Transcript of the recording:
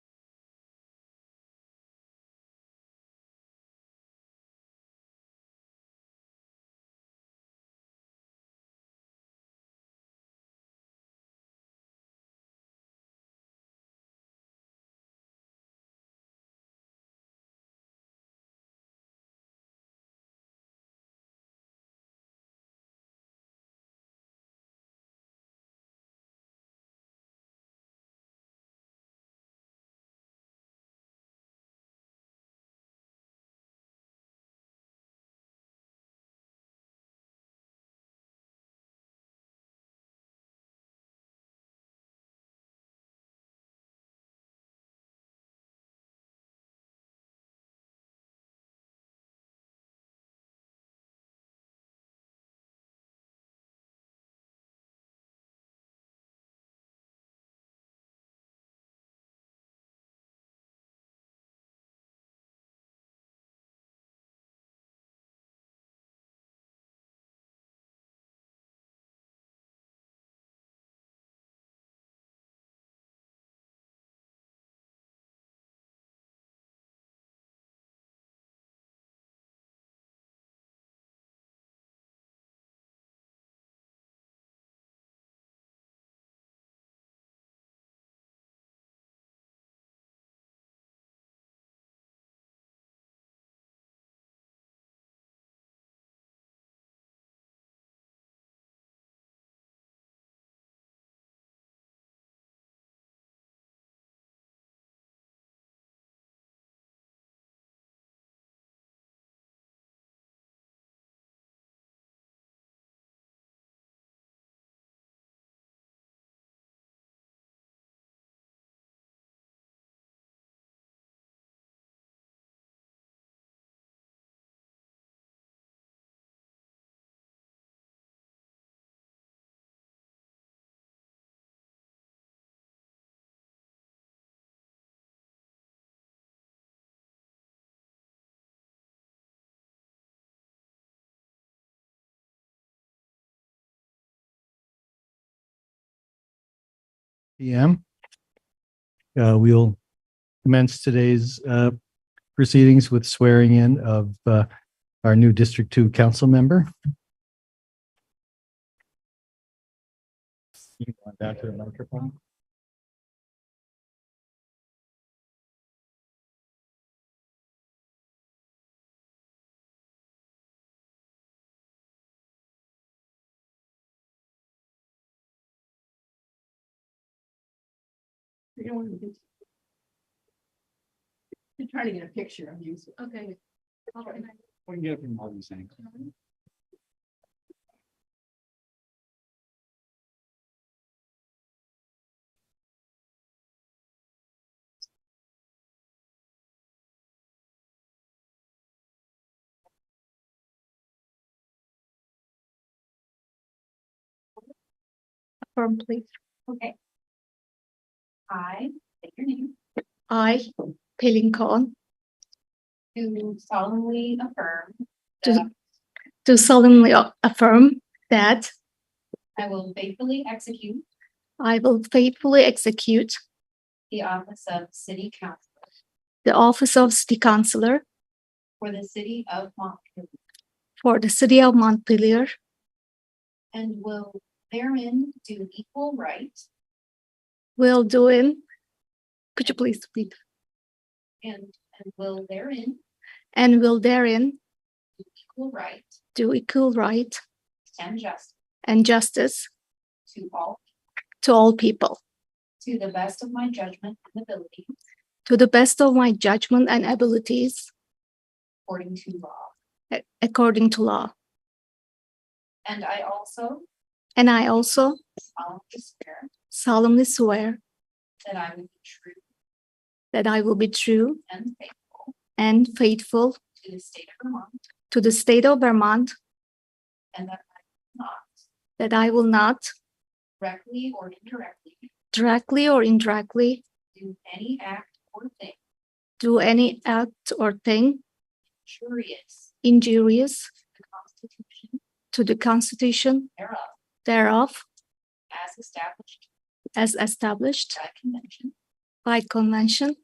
PM. Uh, We'll commence today's uh, proceedings with swearing in of uh, our new District Two council member. You can go Back to the microphone. You don't want to get. You're trying to get a picture of you. Okay. We can get it from Marty's angle. Form, please. Okay. I, state your name, I, Paylin Khan, do solemnly affirm Do- that do solemnly affirm that I will faithfully execute I will faithfully execute the office of city councilor the office of city councillor for the city of Montpelier for the city of Montpelier and will therein do equal right will do in. Could you please read? and, and will therein And will therein do equal right do equal right and justice and justice to all, to all people, to the best of my judgment and ability to the best of my judgment and abilities, according to law. a- according to law. And I also And I also solemnly swear solemnly swear that I will be true that I will be true and faithful and faithful to the state of Vermont to the state of Vermont, and that I will not that I will not directly or indirectly directly or indirectly do any act or thing do any act or thing injurious injurious to the Constitution to the Constitution thereof thereof as established as established by convention by convention